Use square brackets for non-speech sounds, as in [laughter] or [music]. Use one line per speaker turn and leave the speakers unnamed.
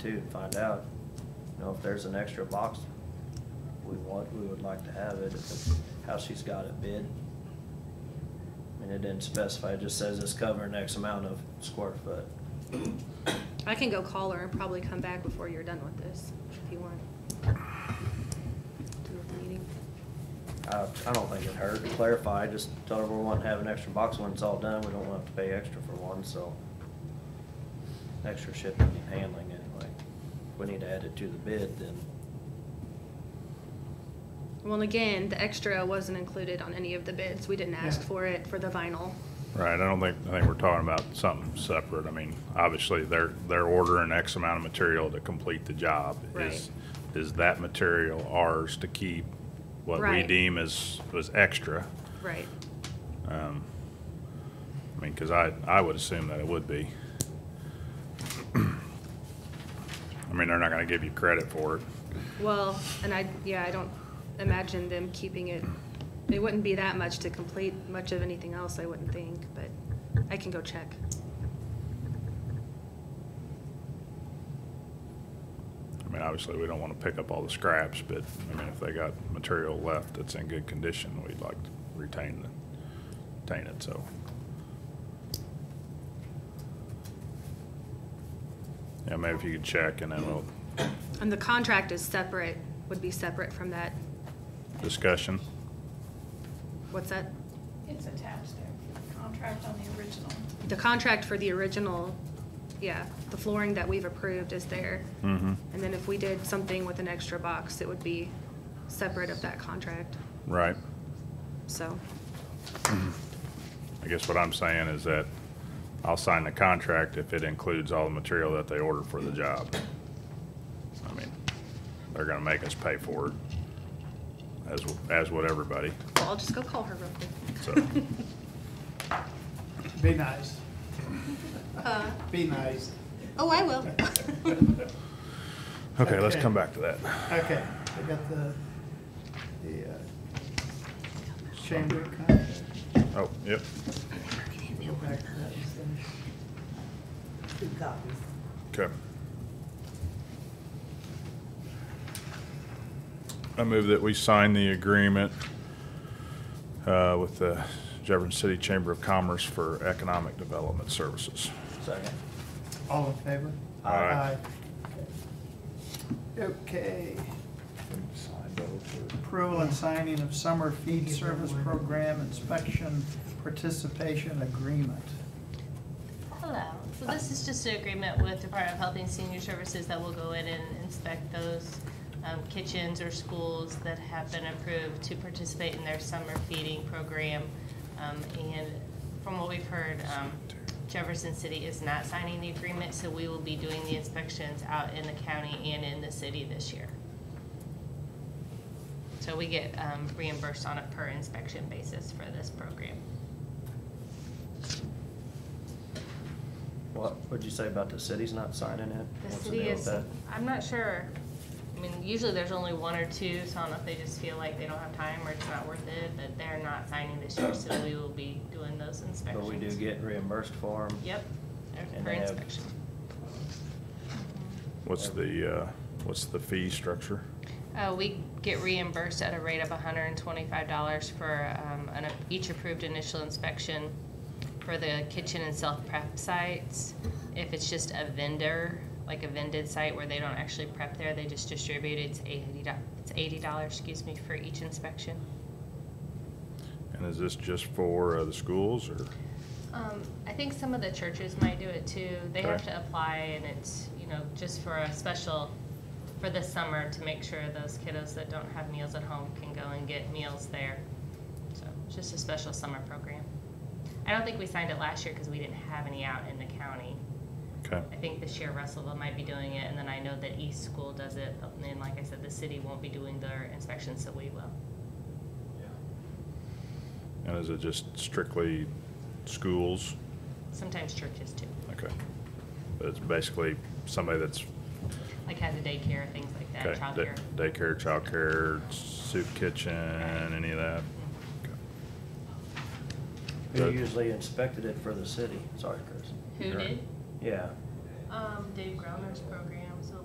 too and find out, you know, if there's an extra box we want, we would like to have it, if it's how she's got it bid. I mean, it didn't specify, it just says it's covering X amount of square foot.
I can go call her and probably come back before you're done with this, if you want. Do with the meeting.
I, I don't think it hurt to clarify, just tell her we want to have an extra box when it's all done, we don't want to pay extra for one, so. Extra shipping and handling anyway. If we need to add it to the bid, then,
Well, again, the extra wasn't included on any of the bids. We didn't ask for it for the vinyl.
Right, I don't think, I think we're talking about something separate. I mean, obviously, they're, they're ordering X amount of material to complete the job. Is Is that material ours to keep what we
Right.
deem as, as extra?
Right.
Um, I mean, because I, I would assume that it would be. [clears throat] I mean, they're not going to give you credit for it.
Well, and I, yeah, I don't imagine them keeping it, it wouldn't be that much to complete much of anything else, I wouldn't think, but I can go check.
I mean, obviously, we don't want to pick up all the scraps, but, I mean, if they got material left that's in good condition, we'd like to retain the, retain it, so. Yeah, maybe if you could check, and then we'll,
And the contract is separate, would be separate from that,
discussion,
what's that?
It's attached there, for the contract on the original.
The contract for the original, yeah, the flooring that we've approved is there.
Mhm.
And then if we did something with an extra box, it would be separate of that contract,
right?
so.
I guess what I'm saying is that I'll sign the contract if it includes all the material that they order for the job. I mean, they're gonna make us pay for it, as, as would everybody,
Well, I'll just go call her real quick.
so.
Be nice.
Uh,
Be nice.
Oh, I will.
[laughs] Okay, let's
Okay.
come back to that.
Okay, I got the, the uh, chamber contract.
Oh, yep.
Go back to that and
Two copies.
Okay. I move that we sign the agreement uh, with the Jefferson City Chamber of Commerce for Economic Development Services.
second.
send- All in favor?
Aye.
Aye. Okay,
Signed over.
approval and signing of summer feed service program inspection participation agreement.
Hello. So this is just an agreement with Department of Health and Senior Services that will go in and inspect those um, kitchens or schools that have been approved to participate in their summer feeding program. Um, And from what we've heard, um, Jefferson City is not signing the agreement, so we will be doing the inspections out in the county and in the city this year. So we get um, reimbursed on a per inspection basis for this program.
What, what'd you say about the city's not signing it?
The
What's
city
deal with
is,
that?
I'm not sure. I mean, usually there's only one or two, so I don't know if they just feel like they don't have time or it's not worth it, but they're not signing this year, so we will be doing those
But
inspections.
we do get reimbursed for them.
Yep,
And
for
they have-
inspection.
What's the, uh, what's the fee structure?
Uh, we get reimbursed at a rate of hundred and twenty-five dollars for, um, an, each approved initial inspection for the kitchen and self-prep sites. If it's just a vendor, like a vended site where they don't actually prep there, they just distribute, it's eighty dollars. it's eighty dollars, excuse me, for each inspection.
And is this just for uh, the schools or?
Um, I think some of the churches might do it too. They have
Okay.
to apply and it's, you know, just for a special, for the summer to make sure those kiddos that don't have meals at home can go and get meals there. So it's just a special summer program. I don't think we signed it last year because we didn't have any out in the county.
Okay,
I think this year Russellville might be doing it and then I know that East School does it. And then, like I said, the city won't be doing their inspections, so we will.
and is it just strictly schools?
Sometimes churches too,
Okay. But it's basically somebody that's
like has a daycare, things like that,
Okay, da-
childcare.
Daycare, childcare, soup kitchen, any of that?
Mm-hmm.
Who
Good.
usually inspected it for the city? Sorry, Chris.
Who
Sure.
did?
Yeah,
Um, Dave Gromer's program.